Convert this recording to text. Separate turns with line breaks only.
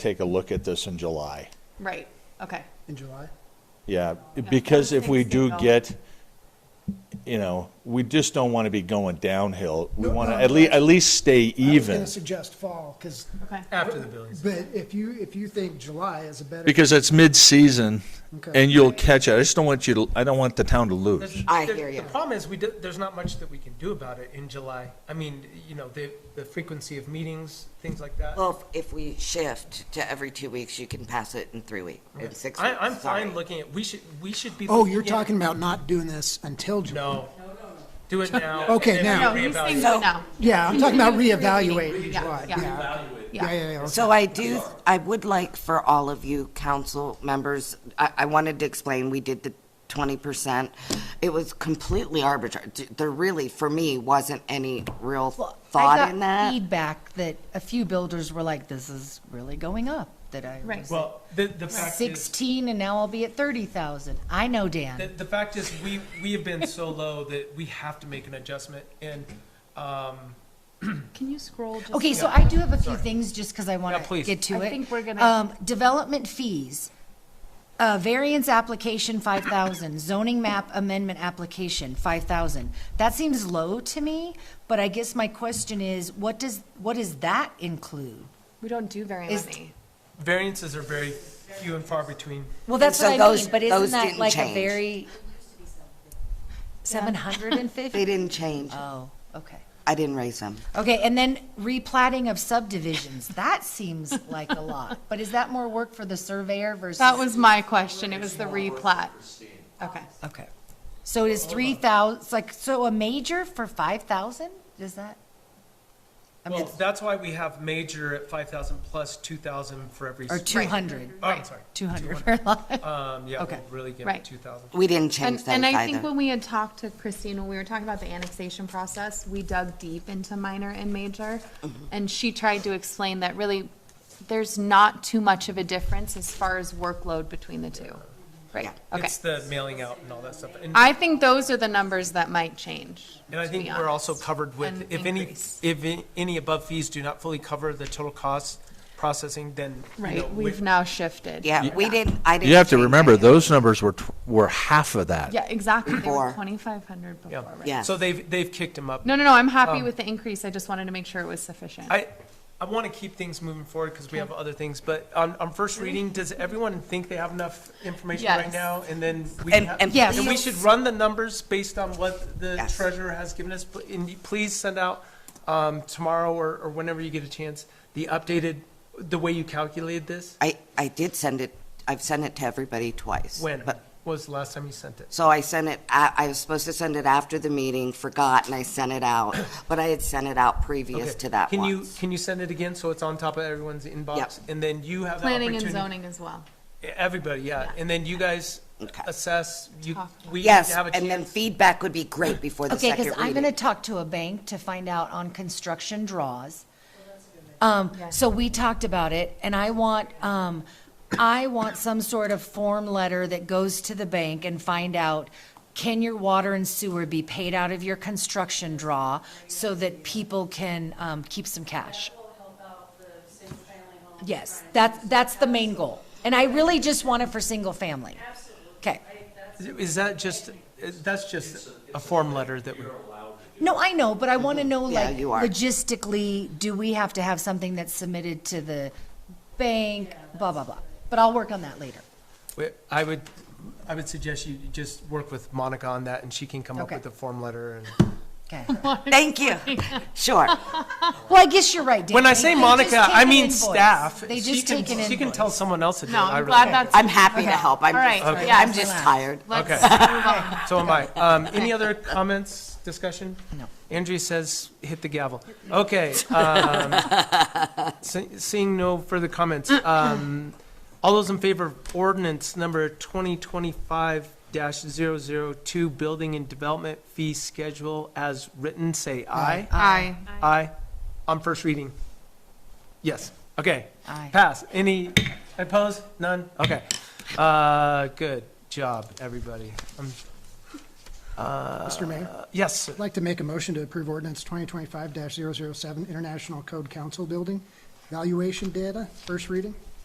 take a look at this in July.
Right, okay.
in July?
Yeah, because if we do
Thanksgiving.
get, you know, we just don't want to be going downhill. We
No,
want to
no,
at
no.
least, at least stay
I was going
even.
to suggest fall, because,
Okay.
After the Billy season.
but if you, if you think July is a better.
Because it's mid-season
Okay.
and you'll catch it. I just don't want you to, I don't want the town to lose.
There's-
I
there-
hear ya.
The problem is, we, do- there's not much that we can do about it in July. I mean, you know, the, the frequency of meetings, things like that.
Well, if if we shift to every two weeks, you can pass it in three weeks, in six
I,
weeks.
I'm fine
sorry.
looking at, we should, we should be.
Oh,
looking
you're
at-
talking about not doing this until July?
No. Do it now.
Okay,
and
now.
No,
then we
he's saying
reevaluate.
go now.
Yeah, I'm talking about
Reevaluating,
reevaluating
yeah,
July.
yeah.
Yeah,
Yeah,
yeah, yeah, yeah.
So I do, I would like for all of you council members, I, I wanted to explain, we did the twenty percent. It was completely arbitrary. D- There really, for me, wasn't any real
Well,
thought
I
in
got
that.
feedback that a few builders were like, this is really going up, that I
Right.
was
Well, the, the fact is.
sixteen and now I'll be at thirty thousand. I know,
The,
Dan.
the fact is, we, we have been so low that we have to make an adjustment, and, um,
Can you scroll just?
Okay, so I do have a few things, just because I want
Yeah, please.
to get to it.
I think we're gonna-
Um, development fees, uh, variance application, five thousand, zoning map amendment application, five thousand. That seems low to me, but I guess my question is, what does, what does that include?
We don't do very
Is-
many.
variances are very few and far between.
Well, that's
so
what I
those-
mean, but
those
isn't that
didn't
like a
change.
very? Seven hundred and
They
fifty?
didn't change.
Oh, okay.
I didn't raise them.
Okay, and then replatting of subdivisions, that seems like a lot, but is that more work for the surveyor versus?
That was my question, it was the replat. Okay.
Okay. So it is three thousand, like, so a major for five thousand, is that? I mean,
Well, that's why we have major at five thousand plus two thousand for every.
Or
s-
two hundred,
Oh, I'm sorry.
two hundred for a lot.
Um, yeah,
Okay.
we'll really give
Right.
it two thousand.
We didn't
And,
change them
and I think
either.
when we had talked to Christine, when we were talking about the annexation process, we dug deep into minor and major. And she tried to explain that really, there's not too much of a difference as far as workload between the two. Right, okay.
It's the mailing out and all that stuff. And,
I think those are the numbers that might change.
and I
to
think
be
we're also
honest,
covered with,
and
if any,
increase.
if i- any above fees do not fully cover the total cost processing, then, you know,
Right,
we-
we've now shifted.
Yeah, we didn't, I didn't.
You have to
change
remember,
any of
those numbers were, tw- were half of that.
Yeah, exactly. They were
Four.
2,500 before,
yeah.
right?
Yeah.
So they've, they've kicked them up.
No, no, no, I'm happy with the increase. I just wanted to make sure it was sufficient.
I, I want to keep things moving forward because we have other things, but on, on first
Mm-hmm.
reading, does everyone think they have enough information right
Yes.
now? And then we
And-
have-
and
Yes.
and we
please-
should run the numbers based on what the
Yes.
treasurer has given us. Pl- And you- please send out um, tomorrow or, or whenever you get a chance, the updated, the way you calculated this.
I, I did send it, I've sent it to everybody twice.
When
But
was the last time you sent it?
So I sent it, I, I was supposed to send it after the meeting, forgot, and I sent it out, but I had sent it out previous
Okay.
to that
Can you,
once.
can you send it again so it's on top of everyone's inbox? And then you have the
Planning
opportunity.
and zoning as well.
Everybody, yeah. And then you guys
Okay.
assess, you,
Talk.
we have
Yes,
a chance.
and then feedback would be great before the
Okay,
second
because
reading.
I'm going to talk to a bank to find out on construction draws. Um, so we talked about it, and I want, um, I want some sort of form letter that goes to the bank and find out, can your water and sewer be paid out of your construction draw so that people can, um, keep some cash? Yes, that's, that's the main goal. And I really just want it for single family. Okay.
Is that just, is- that's just a form letter that we,
No, I know, but I want to know,
Mm-hmm. Yeah,
like,
you are.
logistically, do we have to have something that's submitted to the bank, blah, blah, blah. But I'll work on that later.
we- I would, I would suggest you just work with Monica on that and she can come up
Okay.
with a form letter and.
Okay.
Thank you, sure.
Well, I guess you're right, Dan.
When I
They-
say
they just
Monica,
take
I
an
mean
invoice.
staff.
They
She
just
can-
take an
She can
invoice.
tell someone else to do it.
No,
I
I'm
really
glad
don't.
that's.
I'm happy to
Okay.
help, I'm
All right,
just,
so yeah, so
I'm just
let's-
tired.
Let's
Okay.
move on.
So am I. Um, any other comments, discussion?
No.
Andrea says, hit the gavel. Okay. um, se- Seeing no further comments, um, all those in favor of ordinance number twenty twenty-five 2 building and development fee schedule as written, say aye.
Aye.
Aye. On first reading? Yes. Okay.
Aye.
Pass. Any opposed? None? Okay. Uh, good job, everybody. Um, uh,
Mr. Mayor,
Yes, sir.
I'd like to make a motion to approve ordinance 2025-007, International Code Council Building, valuation data, first reading.